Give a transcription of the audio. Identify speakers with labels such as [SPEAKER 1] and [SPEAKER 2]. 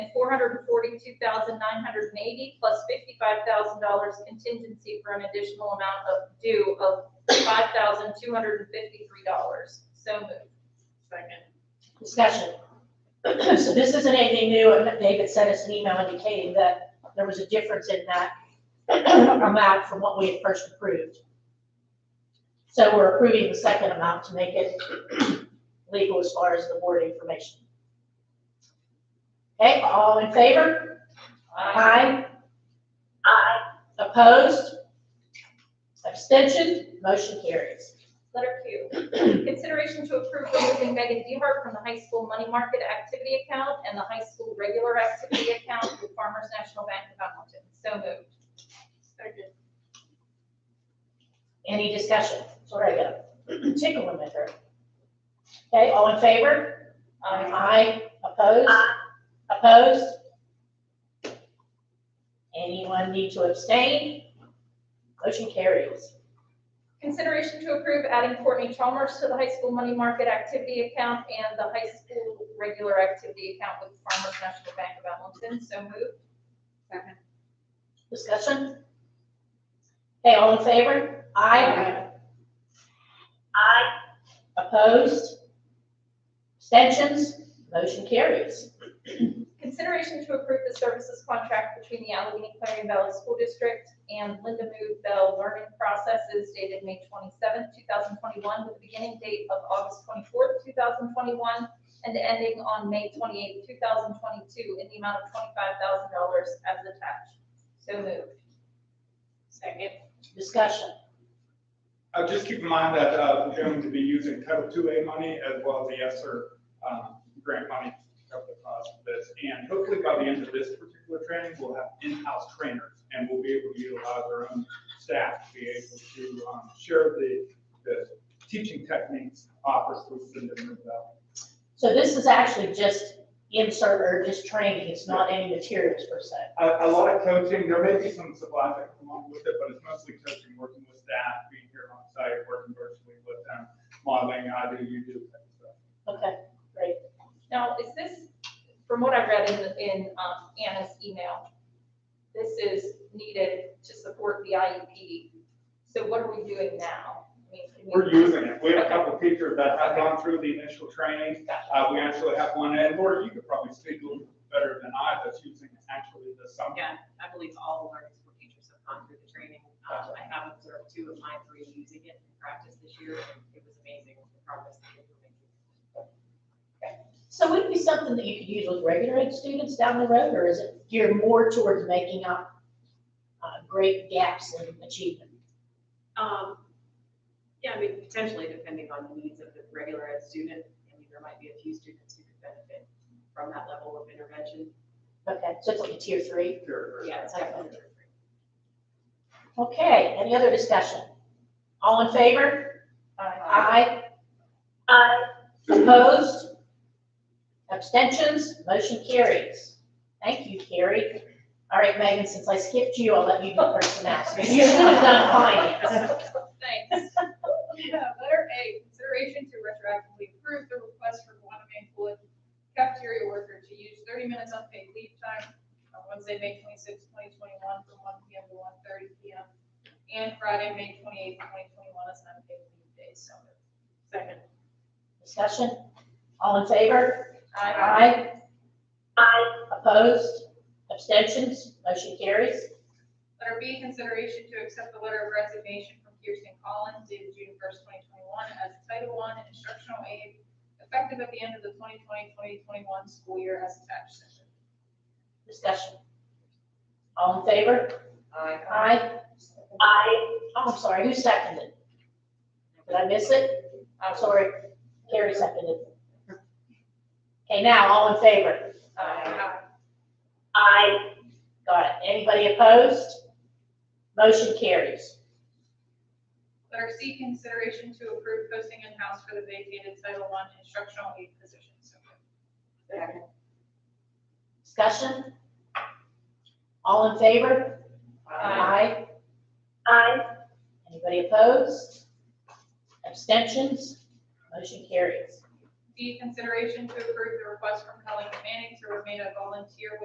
[SPEAKER 1] hundred and forty-two thousand nine hundred and eighty plus fifty-five thousand dollars contingency for an additional amount of due of five thousand two hundred and fifty-three dollars. So moved.
[SPEAKER 2] Second.
[SPEAKER 3] Discussion. So this isn't anything new, and David sent us an email indicating that there was a difference in that amount from what we had first approved. So we're approving the second amount to make it legal as far as the board information. Okay, all in favor? Aye. Aye. Opposed? Abstention? Motion carries.
[SPEAKER 1] Letter Q, consideration to approve removing Megan DeHart from the high school money market activity account and the high school regular activity account with Farmers National Bank of Hamilton. So moved.
[SPEAKER 2] Second.
[SPEAKER 3] Any discussion? Sorry, I got a tickle in my throat. Okay, all in favor?
[SPEAKER 1] Um,
[SPEAKER 3] Aye. Opposed? Opposed? Anyone need to abstain? Motion carries.
[SPEAKER 1] Consideration to approve adding Courtney Chalmers to the high school money market activity account and the high school regular activity account with Farmers National Bank of Hamilton. So moved.
[SPEAKER 2] Second.
[SPEAKER 3] Discussion? Okay, all in favor? Aye. Aye. Opposed? Abstentions? Motion carries.
[SPEAKER 1] Consideration to approve the services contract between the Allegheny Clarion Valley School District and Linda Mood Bell Learning Processes dated May twenty-seventh, two thousand twenty-one, with a beginning date of August twenty-fourth, two thousand twenty-one, and ending on May twenty-eighth, two thousand twenty-two, in the amount of twenty-five thousand dollars as attached. So moved.
[SPEAKER 2] Second.
[SPEAKER 3] Discussion?
[SPEAKER 4] Uh, just keep in mind that, uh, we're going to be using Title II A money as well as the ESSER, um, grant money to cover the cost of this. And hopefully by the end of this particular training, we'll have in-house trainers and we'll be able to utilize our own staff to be able to, um, share the, the teaching techniques offered through Cinder Mill Valley.
[SPEAKER 3] So this is actually just insert or just training, it's not any materials per se.
[SPEAKER 4] A, a lot of coaching, there may be some supplies that come along with it, but it's mostly coaching, working with staff, being here on site, working virtually with them, modeling, I do, you do, that stuff.
[SPEAKER 3] Okay,
[SPEAKER 1] Now, is this, from what I read in, in um, Anna's email, this is needed to support the
[SPEAKER 5] E
[SPEAKER 1] IEP. So what are we doing now? I mean, can we-
[SPEAKER 4] We're using it. We have a couple of teachers that have gone through the initial training. Uh, we actually have one, and Lori, you could probably speak a little bit better than I, that's using it actually this summer.
[SPEAKER 2] Yeah, I believe all of our school teachers have gone through the training. Um, I have observed two of my three using it in practice this year, and it was amazing the progress that they were making.
[SPEAKER 3] so would it be something that you could use with regular ed students down the road, or is it geared more towards making up uh, great gaps in achievement?
[SPEAKER 2] Um, yeah, I mean, potentially depending on the needs of the regular ed student, I mean, there might be a few students who could benefit from that level of intervention.
[SPEAKER 3] Okay, so it's like a tier three.
[SPEAKER 4] Sure.
[SPEAKER 2] Yeah, it's definitely.
[SPEAKER 3] Okay, any other discussion? All in favor?
[SPEAKER 1] Uh,
[SPEAKER 3] Aye. Aye. Opposed? Abstentions? Motion carries. Thank you, Carrie. All right, Megan, since I skipped you, I'll let you do personnel. So You're done finance.
[SPEAKER 5] Thanks. Yeah, Letter A, consideration to retroactively approve the request for Guanabang Flint cafeteria worker to use thirty minutes unpaid leave time on Wednesday, May twenty-sixth, twenty twenty-one, from one P M to one thirty P M. And Friday, May twenty-eighth, twenty twenty-one, as an unpaid leave day, so moved.
[SPEAKER 2] Second.
[SPEAKER 3] Discussion? All in favor?
[SPEAKER 5] I,
[SPEAKER 3] Aye. Aye. Opposed? Abstentions? Motion carries.
[SPEAKER 5] letter B, consideration to accept the letter of resignation from Kirsten Collins dated June first, twenty twenty-one, as Title I instructional aide, effective at the end of the 2020-2021 school year as attached. So moved.
[SPEAKER 3] Discussion? All in favor?
[SPEAKER 2] Aye.
[SPEAKER 3] Aye. Aye. Oh, I'm sorry, who seconded? Did I miss it? I'm sorry, Carrie seconded. Okay, now, all in favor?
[SPEAKER 5] Aye.
[SPEAKER 3] Aye. Got it. Anybody opposed? Motion carries.
[SPEAKER 5] Letter C, consideration to approve posting in-house for the vacated Title I instructional aid position. So moved.
[SPEAKER 2] Second.
[SPEAKER 3] Discussion? All in favor? Aye. Aye. Anybody opposed? Abstentions? Motion carries.
[SPEAKER 5] D, consideration to approve the request from Helen Manning to remain a volunteer with